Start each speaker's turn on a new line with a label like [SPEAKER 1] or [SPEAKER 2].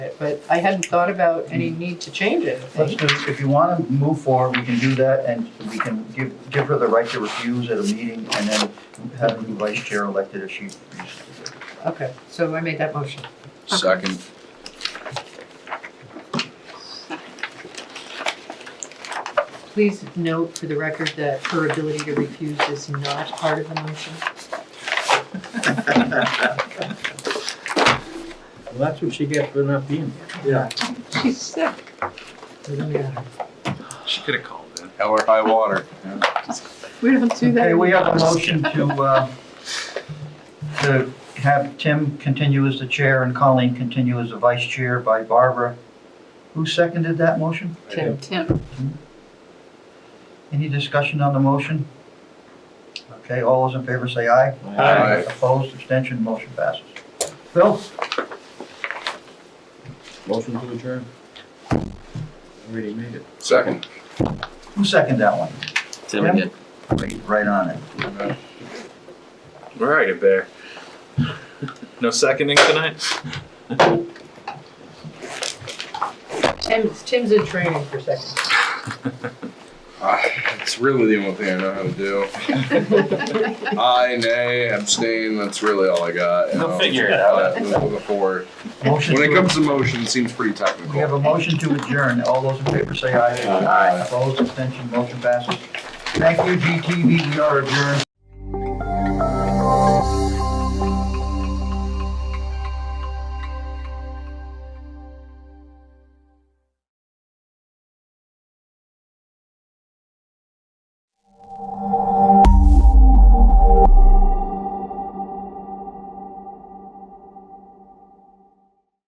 [SPEAKER 1] it, but I hadn't thought about any need to change
[SPEAKER 2] Let's
[SPEAKER 1] anything.
[SPEAKER 2] do, if you want to move forward, we can do that, and we can give, give her the right to refuse at a meeting, and then have a new vice chair elected if she.
[SPEAKER 1] Okay, so I made that motion.
[SPEAKER 3] Second.
[SPEAKER 1] Please note for the record that her ability to refuse is not part of the motion.
[SPEAKER 4] Well, that's what she gets for not being here.
[SPEAKER 5] Yeah.
[SPEAKER 1] She's sick. We don't get her.
[SPEAKER 5] She could have called in.
[SPEAKER 3] Hell or high water.
[SPEAKER 1] We don't do that.
[SPEAKER 2] Okay, we have a
[SPEAKER 1] anymore.
[SPEAKER 2] motion to, uh, to have Tim continue as the chair and Colleen continue as the vice chair by Barbara. Who seconded that motion?
[SPEAKER 1] Tim, Tim,
[SPEAKER 2] Any discussion on the motion? Okay, all those in favor say aye.
[SPEAKER 3] Aye.
[SPEAKER 2] Opposed, abstention, motion passes. Phil?
[SPEAKER 4] Motion to adjourn. Already made it.
[SPEAKER 3] Second.
[SPEAKER 2] Who seconded that one?
[SPEAKER 6] Tim
[SPEAKER 2] Yeah.
[SPEAKER 6] again.
[SPEAKER 2] Right- Right on it.
[SPEAKER 5] We're already there. No seconding tonight?
[SPEAKER 1] Tim's, Tim's in training for seconds.
[SPEAKER 3] Ah, It's really the only thing I know how to do. Aye, nay, abstain, that's really all I got. you
[SPEAKER 5] We'll
[SPEAKER 3] know.
[SPEAKER 5] figure it out.
[SPEAKER 3] Yeah, Moving forward.
[SPEAKER 2] Motion
[SPEAKER 3] When it
[SPEAKER 2] to-
[SPEAKER 3] comes to motion, it seems pretty
[SPEAKER 2] We have
[SPEAKER 3] technical.
[SPEAKER 2] a motion to adjourn. All those in favor say aye.
[SPEAKER 3] Aye.
[SPEAKER 2] Opposed, abstention, motion passes. Thank you, GTV. We are adjourned.